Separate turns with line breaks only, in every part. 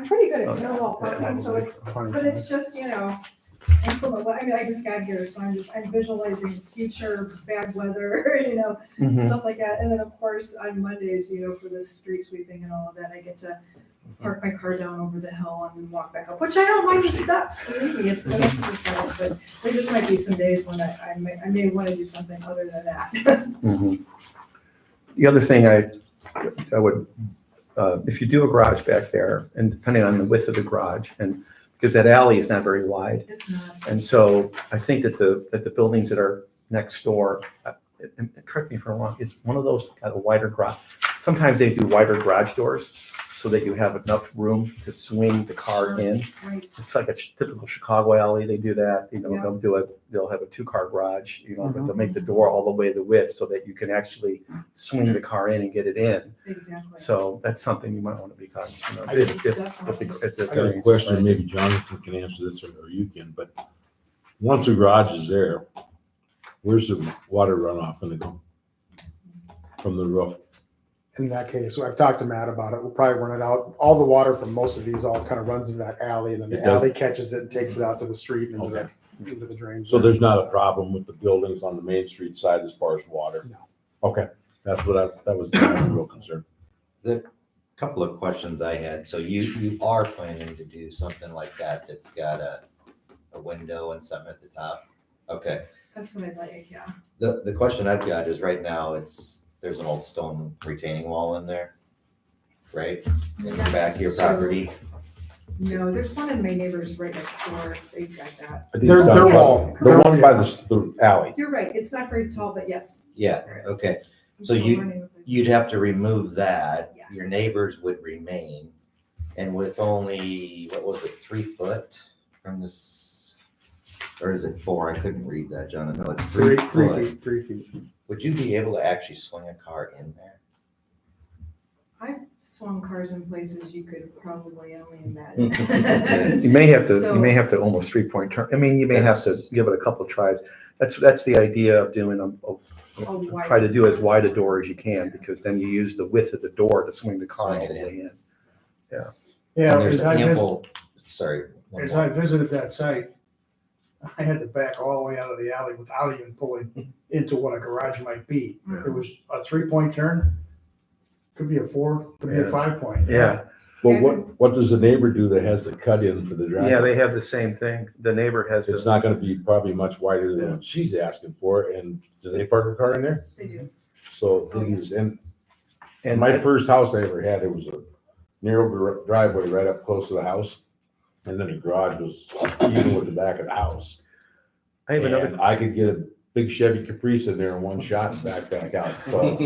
I'm pretty good at
Okay.
parallel
Yeah,
parking, so
that's-
it's, but it's just, you know, implement, I mean, I just got here, so I'm just, I'm visualizing future bad weather, you know,
Mhm.
stuff like that. And then, of course, on Mondays, you know, for the street sweeping and all of that, I get to
Mm-hmm.
park my car down over the hill and walk back up, which I don't mind the steps, believe me, it's good exercise, but there just might be some days when I, I may, I may want to do something other than that.
Mhm. mm-hmm. The other thing I, I would, uh, if you do a garage back there, and depending on the width of the garage, and because that alley is not very wide,
It's not.
and so I think that the, that the buildings that are next door, uh, and and correct me if I'm wrong, is one of those got a wider garage. Sometimes they do wider garage doors so that you have enough room to swing the car in.
Right.
It's like a ch- typical Chicago alley. They do that, you know,
Yeah.
they'll do it, they'll have a two-car garage, you know, but they'll make the door all the way the width so that you can actually swing the car in and get it in.
Exactly.
So that's something you might want to be cognizant of.
I-
if- if- if
Definitely.
the- if the
I got a
variance-
question, maybe Jonathan can answer this or or you can, but once the garage is there, where's the water runoff gonna go? From the roof?
in that case, I've talked to Matt about it. We'll probably run it out. All the water from most of these all kind of runs into that alley, and then
It
the
does.
alley catches it and takes it out to the street and into,
Okay.
that, into the drains.
So there's not a problem with the buildings on the Main Street side as far as water?
No.
Okay, that's what I, that was my real concern.
couple of questions I had. So you, you are planning to do something like that that's got a, a window and something at the top? Okay.
That's what I like, yeah.
The, the question I've got is right now it's, there's an old stone retaining wall in there, right? In the back of your
So,
property.
No, there's one in my neighbor's right next door. They've got that.
I think
They're-
it's down
they're
by-
wall.
The
They're-
one by the, s- the alley.
You're right. It's not very tall, but yes.
Yeah,
there is.
okay.
I'm
So
still
you-
learning with this.
You'd have to remove that.
Yeah.
Your neighbors would remain. And with only, what was it, three foot from this? Or is it four? I couldn't read that, Jonathan. It's
three,
three
three
foot.
feet, three feet.
Would you be able to actually swing a car in there?
I've swung cars in places you could probably only
Yeah.
imagine.
You may have to,
So-
you may have to almost three-point turn. I mean, you may have to
That's-
give it a couple tries. That's, that's the idea of doing a- a
A wide-
try to do as wide a door as you can, because then you use the width of the door to swing the car all
Swing
the
it in.
way in.
Yeah,
And there's
as I, vis-
ample, sorry. one
as
more.
I visited that site, I had to back all the way out of the alley without even pulling into what a garage might be. It was a three-point turn, could be a four, could be
Yeah.
a five-point.
Yeah,
Well, what, what does the neighbor do that has the cut in for the driveway?
yeah, they have the same thing. The neighbor has
It's
the,
not gonna be probably much wider than what she's asking for, and do they park a car in there?
They do.
So these, and
and
my
my,
first house I ever had, it was a narrow gar- driveway right up close to the house. And then the garage was even with the back of the house.
I have another,
And I could get a big Chevy Caprice in there in one shot and back, back out. So,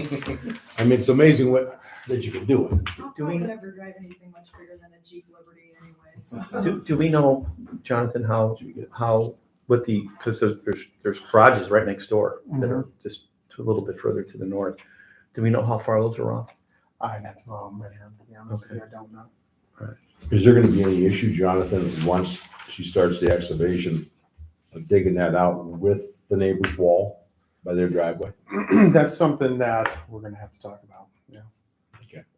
I mean, it's amazing what, that you can do it.
I'll
Do we-
probably never drive anything much bigger than a Jeep Liberty anyway, so.
do, do we know, Jonathan, how, how, what the, because there's, there's garages right next door that are
Mm-hmm.
just a little bit further to the north. Do we know how far those are off?
I know. Oh, man. Yeah, I'm
Okay.
I don't know.
Is there gonna be any issue, Jonathan, once she starts the excavation of digging that out with the neighbor's wall by their driveway?
That's something that we're going to have to talk about. Yeah.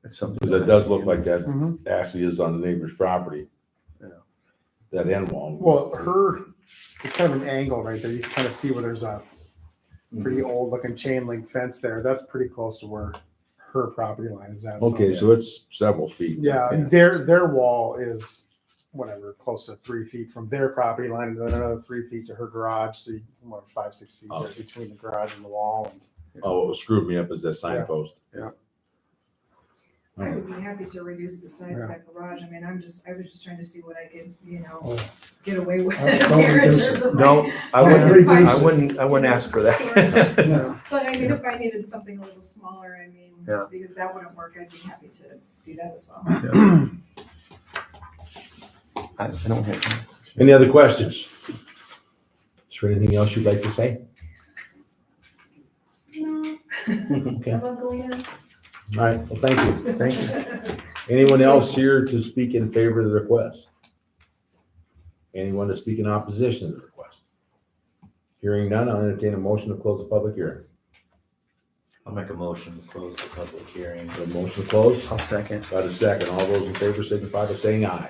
It's something.
Because it does look like that
Mm-hmm.
actually is on the neighbor's property.
Yeah.
That end wall.
Well, her, it's kind of an angle right there. You can kind of see where there's a pretty
Mm-hmm.
old looking chain link fence there. That's pretty close to where her property line is at.
Okay, so it's several feet.
Yeah, their their wall is whatever, close to three feet from their property line, and then another three feet to her garage. So you what five, six feet there
Oh.
between the garage and the wall. And
Oh, it screwed me up as that signpost.
Yeah.
I
Alright.
would be happy to reduce the size of
Yeah.
that garage. I mean, I'm just, I was just trying to see what I could, you know,
Oh.
get away with
Don't
here in
reduce
terms of like.
No, I wouldn't, I wouldn't, I wouldn't ask for that.
Yeah.
But I mean, if I needed something a little smaller, I mean,
Yeah.
because that wouldn't work, I'd be happy to do that as well.
I I don't have,
Any other questions? Is there anything else you'd like to say?
No, I
Okay.
love Galena.
All right, well, thank you. Anyone else here to speak in favor of the request? Anyone to speak in opposition to the request? Hearing none, I'll entertain a motion to close the public hearing.
I'll make a motion to close the public hearing.
A motion to close,
I'll second.
about a second. All those in favor signify by saying aye.